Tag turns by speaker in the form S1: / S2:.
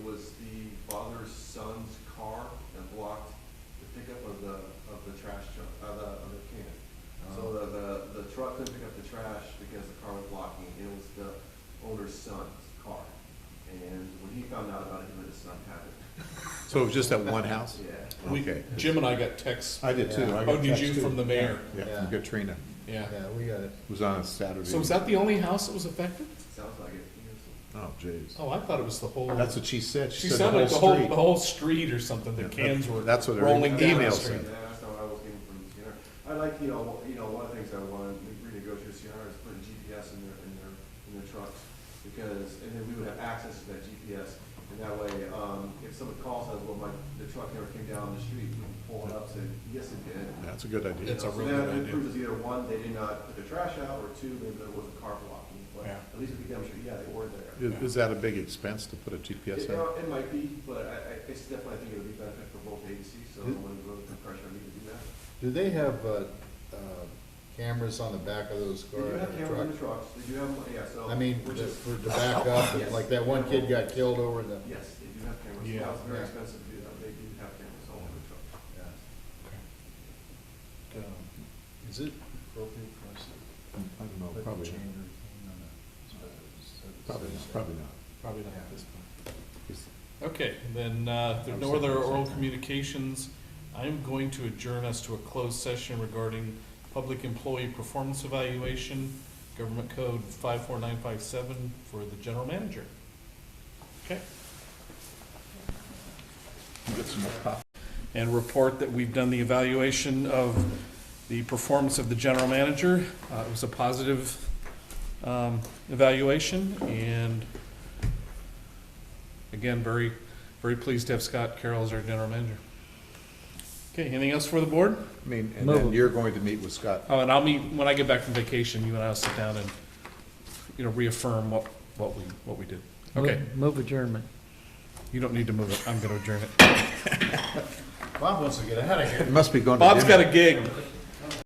S1: up the trash truck, uh, the other can. So the, the, the truck couldn't pick up the trash because the car was blocking, it was the owner's son's car. And when he found out about it, him and his son had it,
S2: So it was just that one house?
S1: yeah.
S3: We,
S2: Okay.
S3: Jim and I got texts.
S2: I did too. I got
S3: Oh, did you
S2: text, too.
S3: from the mayor?
S2: Yeah, from Katrina.
S3: Yeah.
S4: Yeah, we got it.
S2: It was on a Saturday.
S3: So was that the only house that was affected?
S1: Sounds like it, yes.
S2: Oh, jeez.
S3: Oh, I thought it was the whole.
S2: That's what she said.
S3: She
S2: She said
S3: sounded
S2: the
S3: like the whole,
S2: whole
S3: the
S2: street.
S3: whole street or something, the
S2: Yeah, that-
S3: cans were
S2: that's what every
S3: rolling down the
S2: email
S3: street.
S2: said.
S1: Yeah, that's not what I was getting from Sierra. I like, you know, you know, one of the things I wanted to renegotiate with Sierra is putting GPS in their, in their, in their trucks. Because, and then we would have access to that GPS, and that way, um, if someone calls us, well, my, the truck never came down the street, we can pull it up, say, yes, it did.
S2: That's a good idea.
S3: It's a
S1: So
S3: really
S1: that
S3: good idea.
S1: proves either one, they did not put their trash out, or two, maybe there was a car blocking, but
S3: Yeah.
S1: at least we can demonstrate, yeah, they were there.
S2: Is, is that a big expense to put a
S1: It,
S2: GPS
S1: uh,
S2: in?
S1: it might be, but I, I, it's definitely, I think it would be beneficial for both agencies, so I'm
S3: Mm-hmm.
S1: gonna go with the pressure, I need to do that.
S4: Do they have, uh, uh, cameras on the back of those
S1: They do
S4: cars?
S1: have
S4: or
S1: cameras in the
S4: truck?
S1: trucks, they do have, yeah, so.
S4: I mean,
S1: Which
S4: the-
S1: is,
S4: for, to back up,
S1: Yes.
S4: like that one kid got killed over the,
S1: yes, they do have cameras,
S3: Yeah.
S1: now it's very
S4: Yeah.
S1: expensive to do that, they do have cameras all over the truck.
S5: Um, Is it appropriate for us
S2: I don't
S5: to
S2: know,
S5: put the
S2: Oh, probably,
S5: chain
S2: not.
S5: or anything on a? so-
S4: uh,
S5: so-
S2: probably,
S5: so-
S2: not, probably not.
S3: Probably not
S5: Yeah.
S3: at this point.
S2: It's-
S3: Okay, then, uh, if there are no
S2: Upset,
S3: other
S2: upset.
S3: oral communications, I'm going to adjourn us to a closed session regarding public employee performance evaluation, government code five four nine five seven for the general manager. Okay?
S2: you get some more coffee.
S3: and report that we've done the evaluation of the performance of the general manager. Uh, It was a positive um, evaluation, and again, very, very pleased to have Scott Carroll as our general manager. Okay, anything else for the board?
S2: I mean, and then
S5: Move.
S2: you're going to meet with Scott.
S3: Oh, and I'll meet, when I get back from vacation, you and I'll sit down and, you know, reaffirm what, what we, what we did. Okay,
S5: Move adjournment.
S3: you don't need to move it, I'm gonna adjourn it.
S4: Bob wants to get out of here.
S2: It must be going to dinner.
S3: Bob's got a gig.